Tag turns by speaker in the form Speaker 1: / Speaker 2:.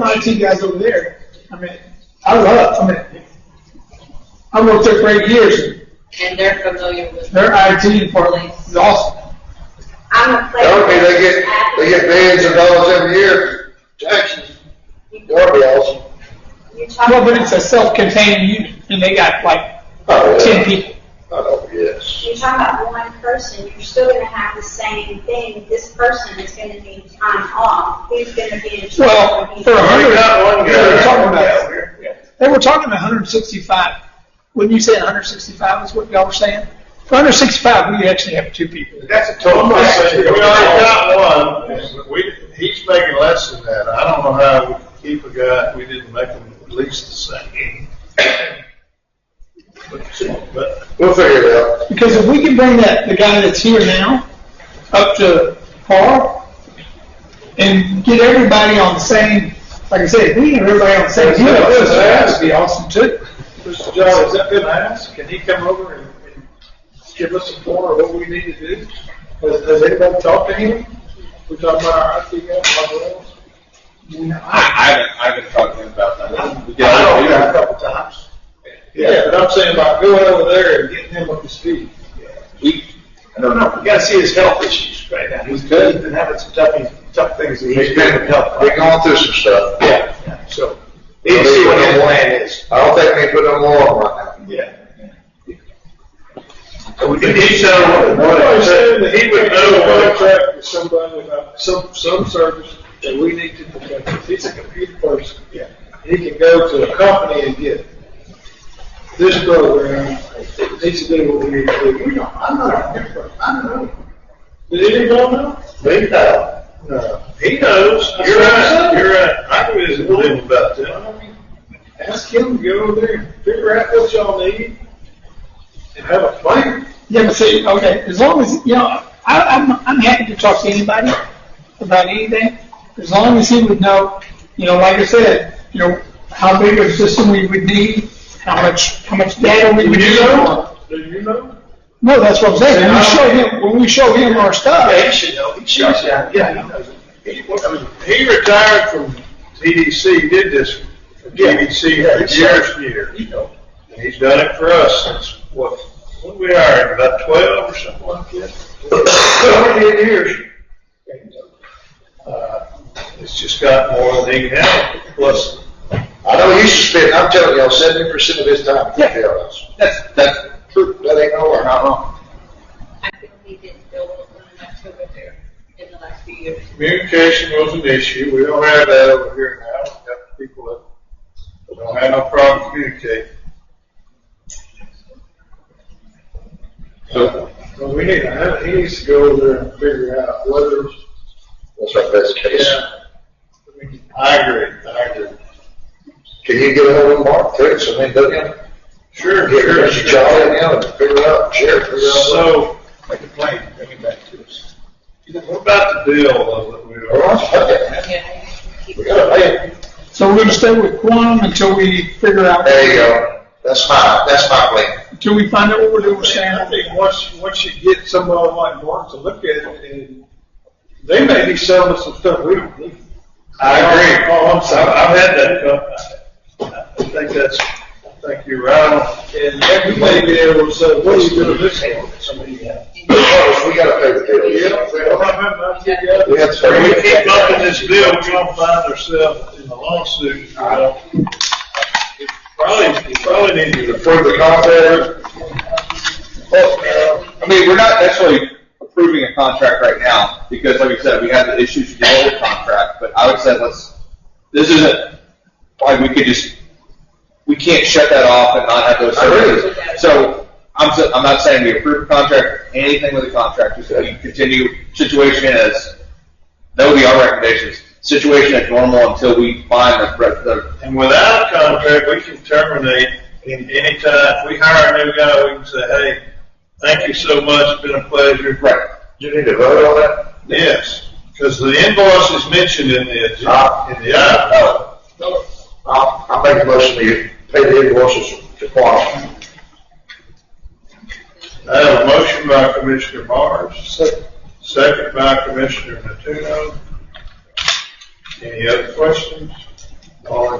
Speaker 1: like you guys over there. I mean, I love. I mean, I worked there for eight years.
Speaker 2: and they're familiar with.
Speaker 1: Their IT department is awesome.
Speaker 3: I'm a player.
Speaker 4: Darby, they get, they get millions of dollars every year, taxes. Darby awesome.
Speaker 3: You talk
Speaker 1: Well, but
Speaker 3: about-
Speaker 1: it's a self-contained unit, and they got like
Speaker 4: Oh, yeah.
Speaker 1: ten people.
Speaker 4: Oh, yes.
Speaker 3: you talk about one person, you're still gonna have the same thing, this person is gonna be time off, who's gonna be in charge?
Speaker 1: Well,
Speaker 3: of
Speaker 1: for a
Speaker 3: each-
Speaker 1: hundred,
Speaker 4: got one
Speaker 1: they were
Speaker 4: guy.
Speaker 1: talking about, they were talking about hundred and sixty-five. Wouldn't you say hundred and sixty-five is what y'all were saying? For hundred and sixty-five, we actually have two people.
Speaker 4: That's a
Speaker 5: Well, I'm not saying, we already got one, we, he's making less than that, I don't know how we keep a guy if we didn't make him at least the same. But- But,
Speaker 4: We'll figure it out.
Speaker 1: Because if we can bring that, the guy that's here now, up to par, and get everybody on the same, like I said, if we get everybody on the same,
Speaker 5: That's- that's-
Speaker 1: that would be awesome too.
Speaker 5: Mr. Joe, has that been asked, can he come over and, and give us a tour of what we need to do? Has, has anybody talked to him? We talking about our IT guy, Bob Wells?
Speaker 6: I, I haven't, I haven't talked to him about that. We get-
Speaker 5: know him A couple times. Yeah, but I'm saying about going over there and getting him up to speed.
Speaker 6: We,
Speaker 5: I don't know, we gotta see his health issues right now, he's
Speaker 6: good.
Speaker 5: been having some tough, tough things that
Speaker 4: He's
Speaker 5: he's
Speaker 4: been,
Speaker 5: been
Speaker 4: we
Speaker 5: helping.
Speaker 4: going through some stuff.
Speaker 5: Yeah, so, we need to see what his plan is.
Speaker 4: I don't think we put no more on right now.
Speaker 5: Yeah. He said, he would know what contract with somebody about some, some service that we need to protect. If He's a computer person. Yeah. He can go to a company and get this program, it needs to do what we need to do. We don't, I'm not a computer person, I don't know. Did anyone know?
Speaker 4: We know.
Speaker 5: No. He knows. You're right, you're right. I knew his little about that. Ask him, to go over there, figure out what y'all need, and have a plan.
Speaker 1: Yeah, but see, okay, as long as, you know, I, I'm, I'm happy to talk to anybody about anything, as long as he would know, you know, like I said, you know, how big of a system we would need, how much, how much data we would need.
Speaker 5: Do you know?
Speaker 1: No, that's what I'm saying, when we show him, when we show him our stuff.
Speaker 5: Yeah, he should know. He should. Yeah, he knows. He, I mean, he retired from TDC, did this for TDC for years and years. And he's done it for us since, what, when we hired, him, about twelve or something like that? Over ten years. Uh, It's just got more than he can handle, plus,
Speaker 4: I know you spend, I'm telling y'all, seventy percent of his time is
Speaker 1: Yeah.
Speaker 4: jailhouse.
Speaker 6: that's, that's
Speaker 4: True, that ain't no lie.
Speaker 6: not wrong.
Speaker 2: I think we didn't build one enough over there in the last few years.
Speaker 5: communication was an issue, we don't have that over here now, we got people that don't have no problem communicating.
Speaker 6: So,
Speaker 5: Well, we need, I- he needs to go over there and figure out whether,
Speaker 4: That's our best case.
Speaker 5: yeah. I mean, I agree, I agree.
Speaker 4: Can you get ahold of Mark Fritz, I mean, doesn't he?
Speaker 5: Sure,
Speaker 4: Get
Speaker 5: sure,
Speaker 4: her, she
Speaker 5: sure.
Speaker 4: jolly him and figure it out, share, figure it out.
Speaker 5: So, make a plan, bring it back to us. What about the bill though, that we
Speaker 4: All
Speaker 5: are?
Speaker 4: right, okay.
Speaker 2: Yeah.
Speaker 4: We gotta pay him.
Speaker 1: So we're gonna stay with Quantum until we figure out,
Speaker 4: There you go. That's my, that's my plan.
Speaker 1: until we find out what we're doing with
Speaker 5: I
Speaker 1: Sam.
Speaker 5: think once, once you get somebody like Mark to look at it, and they may be selling us some stuff we don't need.
Speaker 4: I agree.
Speaker 5: Oh, I'm sorry, I've had that, uh, I think that's, I think you're right, on. and you may be able to say, what are you doing this for? Somebody, yeah.
Speaker 4: Because we gotta pay the bill.
Speaker 5: You know, we don't have much to get.
Speaker 4: We have to pay.
Speaker 5: If we keep bumping this bill, we're gonna find ourselves in a lawsuit, you know. It Probably, it probably need to be
Speaker 4: Approve the contract.
Speaker 6: well, I mean, we're not actually approving a contract right now, because like we said, we had the issues with the old contract, but I would say let's, this isn't, like, we could just, we can't shut that off and not have those
Speaker 4: I agree.
Speaker 6: services. So, I'm, s- I'm not saying we approve a contract, anything with the contract, just that we continue, situation as, that would be our recommendations, situation as normal until we find the, the
Speaker 5: And without a contract, we can terminate in any time. If we hire a new guy, we can say, hey, thank you so much, it's been a pleasure.
Speaker 6: Right.
Speaker 4: You need to vote on that?
Speaker 5: Yes, because the invoice is mentioned in the,
Speaker 4: Ah.
Speaker 5: agenda- in the item.
Speaker 4: No. I'll, I'll make a motion to pay the invoices to Quantum.
Speaker 5: I have a motion by Commissioner Mars, second by Commissioner Natuno. Any other questions?